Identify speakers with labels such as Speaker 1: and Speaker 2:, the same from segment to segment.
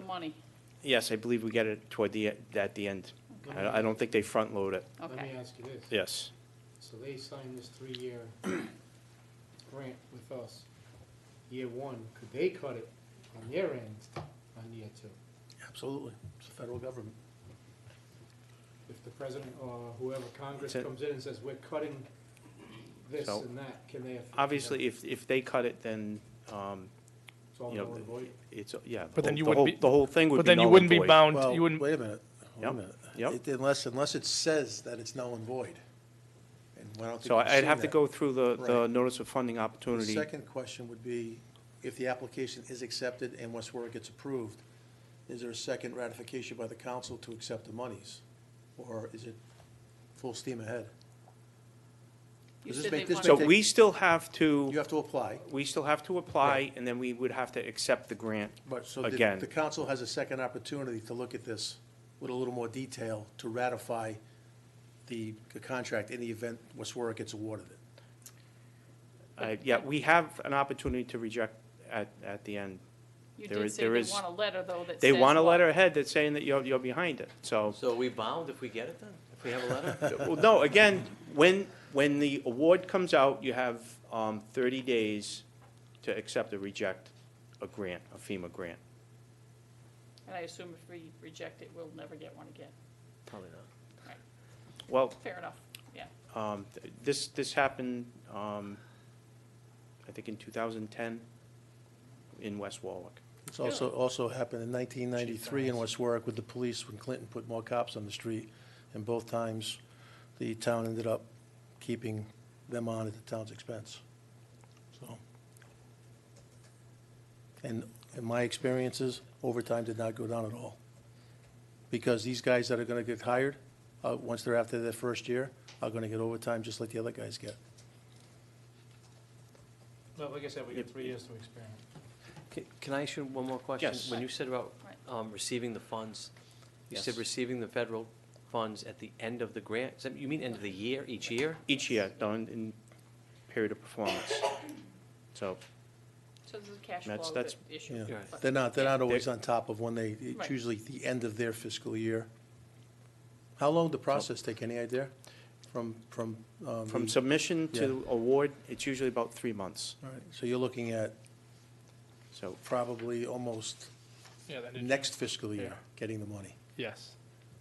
Speaker 1: money,
Speaker 2: Yes, I believe we get it toward the, at the end. I, I don't think they front load it,
Speaker 1: okay.
Speaker 3: Let me uh, ask you this.
Speaker 2: yes.
Speaker 3: So they signed this three-year grant with us. Year one, could they cut it on their end on year two?
Speaker 4: Absolutely. It's the federal government.
Speaker 3: If the president or whoever Congress
Speaker 2: It's a-
Speaker 3: comes in and says, we're cutting this
Speaker 2: So-
Speaker 3: and that, can they? affect that?
Speaker 2: Obviously, if, if they cut it, then, um,
Speaker 3: It's all
Speaker 2: you know,
Speaker 3: null and void.
Speaker 2: it's, yeah. the
Speaker 5: But then
Speaker 2: whole-
Speaker 5: you
Speaker 2: the
Speaker 5: wouldn't
Speaker 2: whole-
Speaker 5: be-
Speaker 2: The whole thing would be
Speaker 5: But then you
Speaker 2: null and
Speaker 5: wouldn't be
Speaker 2: void.
Speaker 5: bound,
Speaker 4: Well,
Speaker 5: you wouldn't,
Speaker 4: wait a minute, wait a
Speaker 2: Yep,
Speaker 4: minute.
Speaker 2: yep.
Speaker 4: It- Unless, unless it says that it's null and void. And I don't think
Speaker 2: So
Speaker 4: we've
Speaker 2: I'd
Speaker 4: seen
Speaker 2: have to
Speaker 4: that.
Speaker 2: go through the, the
Speaker 4: Right.
Speaker 2: notice of funding
Speaker 4: The
Speaker 2: opportunity.
Speaker 4: second question would be, if the application is accepted and West Warwick gets approved, is there a second ratification by the council to accept the monies? Or is it full steam ahead?
Speaker 1: You
Speaker 4: Does this
Speaker 1: said
Speaker 4: make-
Speaker 1: they
Speaker 4: this
Speaker 2: So
Speaker 1: wanted-
Speaker 4: take-
Speaker 2: we still have to,
Speaker 4: You have to apply,
Speaker 2: we still have to apply, and then we would have to accept the grant.
Speaker 4: but so the,
Speaker 2: Again.
Speaker 4: the council has a second opportunity to look at this with a little more detail to ratify the the contract in the event West Warwick gets awarded it.
Speaker 2: Uh, yeah, we have an opportunity to reject at, at the end.
Speaker 1: You
Speaker 2: there
Speaker 1: did
Speaker 2: is-
Speaker 1: say
Speaker 2: there
Speaker 1: they
Speaker 2: is-
Speaker 1: want a letter, though, that says.
Speaker 2: They want a
Speaker 1: what?
Speaker 2: letter ahead that's saying that you're, you're behind it, so.
Speaker 6: So are we bound if we get it then? If we have a letter?
Speaker 2: Well, no, again, when, when the award comes out, you have um, 30 days to accept or reject a grant, a FEMA grant.
Speaker 1: And I assume if we reject it, we'll never get one again.
Speaker 6: Probably not.
Speaker 2: Well,
Speaker 1: Fair enough, yeah.
Speaker 2: um, th- this, this happened, um, I think in 2010 in West Warwick.
Speaker 4: It's also, also happened in nineteen ninety-three in West Warwick with the police when Clinton put more cops on the street. And both times, the town ended up keeping them on at the town's expense, so. And in my experiences, overtime did not go down at all. Because these guys that are gonna get hired, uh, once they're after their first year, are gonna get overtime just like the other guys get.
Speaker 3: Well, like I said, we got three years to experiment.
Speaker 6: Ca- Can I ask you one more question?
Speaker 2: Yes.
Speaker 6: When you said about
Speaker 1: Right.
Speaker 6: um, receiving the funds, you said
Speaker 2: Yes.
Speaker 6: receiving the federal funds at the end of the grant, Does that- you mean end of the year, each year?
Speaker 2: Each year, done in period of performance. So
Speaker 1: So there's a cash
Speaker 2: That's-
Speaker 1: flow
Speaker 2: that's-
Speaker 1: that issue.
Speaker 4: Yeah,
Speaker 6: Right.
Speaker 4: they're not, they're not always
Speaker 2: They-
Speaker 4: on top of when they,
Speaker 1: Right.
Speaker 4: it's usually the end of their fiscal year. How long did the process take, any idea? From, from, um,
Speaker 2: from
Speaker 4: the-
Speaker 2: submission to
Speaker 4: Yeah.
Speaker 2: award, it's usually about three months.
Speaker 4: all right, so you're looking at
Speaker 2: So
Speaker 4: probably almost
Speaker 5: Yeah, that is-
Speaker 4: next fiscal year,
Speaker 5: Yeah.
Speaker 4: getting the money,
Speaker 5: yes.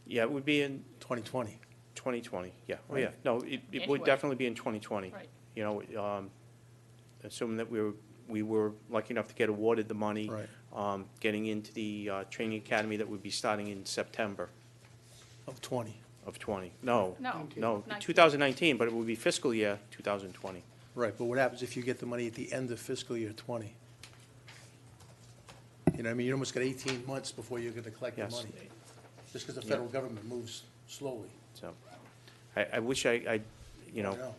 Speaker 2: Yeah, it would be in
Speaker 4: 2020.
Speaker 2: 2020, yeah, oh, yeah,
Speaker 4: Right.
Speaker 2: no, it, it would
Speaker 1: Anyway.
Speaker 2: definitely be in 2020.
Speaker 1: Right.
Speaker 2: You know, um, assuming that we were, we were lucky enough to get awarded the money.
Speaker 4: Right.
Speaker 2: Um, getting into the, uh, training academy that would be starting in September
Speaker 4: of 20,
Speaker 2: of 20, no.
Speaker 1: No.
Speaker 2: No,
Speaker 1: Nineteen.
Speaker 2: 2019, but it would be fiscal year 2020.
Speaker 4: right, but what happens if you get the money at the end of fiscal year 20? You know, what I mean, you almost got 18 months before you're gonna collect the
Speaker 2: Yes.
Speaker 4: money, just because the
Speaker 2: Yeah.
Speaker 4: federal government moves slowly.
Speaker 2: So, I, I wish I, I, you
Speaker 4: I
Speaker 2: know,
Speaker 4: I know.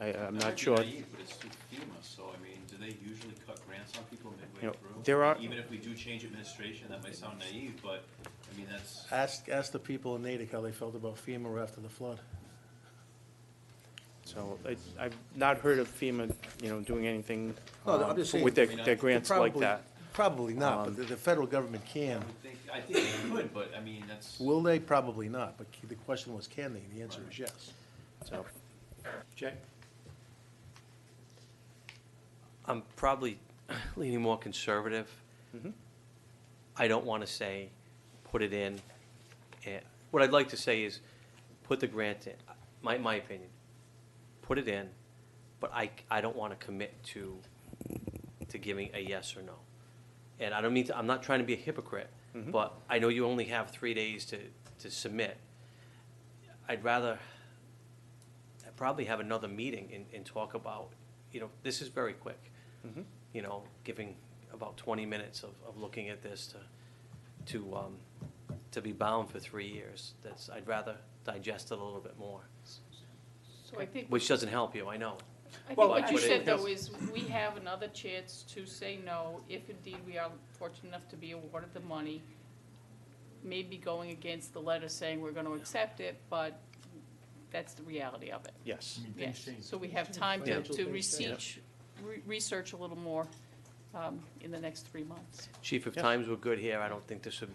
Speaker 2: I, I'm
Speaker 7: That
Speaker 2: not
Speaker 7: might be
Speaker 2: sure.
Speaker 7: naive, but it's through FEMA, so I mean, do they usually cut grants on people
Speaker 2: You
Speaker 7: midway
Speaker 2: know,
Speaker 7: through?
Speaker 2: there are-
Speaker 7: Even if we do change administration, that might sound naive, but, I mean, that's,
Speaker 4: Ask, ask the people in Natick how they felt about FEMA after the flood.
Speaker 2: So, I, I've not heard of FEMA, you know, doing anything,
Speaker 4: No, I'm
Speaker 2: um,
Speaker 4: just saying-
Speaker 2: with their,
Speaker 7: I mean, I-
Speaker 2: their grants like
Speaker 4: Probably-
Speaker 2: that.
Speaker 4: Probably not,
Speaker 2: Um,
Speaker 4: but the, the federal government
Speaker 7: I
Speaker 4: can.
Speaker 7: would think, I think they could, but I mean, that's.
Speaker 4: Will they? Probably not, but the question was, can they? And the answer is yes.
Speaker 2: So,
Speaker 3: Jay?
Speaker 6: I'm probably leaning more conservative.
Speaker 2: Mhm.
Speaker 6: I don't want to say, put it in. eh, What I'd like to say is, put the grant in, my, my opinion. Put it in, but I, I don't want to commit to, to giving a yes or no. And I don't mean to, I'm not trying to be a hypocrite,
Speaker 2: Mm-hmm.
Speaker 6: but I know you only have three days to, to submit. I'd rather, I'd probably have another meeting and, and talk about, you know, this is very quick.
Speaker 2: Mm-hmm.
Speaker 6: You know, giving about twenty minutes of, of looking at this to, to, um, to be bound for three years. That's, I'd rather digest it a little bit more,
Speaker 1: So I think,
Speaker 6: which doesn't help you, I know.
Speaker 1: I think
Speaker 2: Well,
Speaker 1: what you
Speaker 6: actually-
Speaker 1: said, though, is we have another chance to say no if indeed we are fortunate enough to be awarded the money. Maybe going against the letter saying we're gonna accept it, but that's the reality of it.
Speaker 2: yes.
Speaker 1: Yes, so we have time to,
Speaker 4: Financial
Speaker 1: to
Speaker 4: things change.
Speaker 1: research, re- research a little more um, in the next three months.
Speaker 6: Chief, if
Speaker 2: Yeah.
Speaker 6: times were good here, I don't think this would be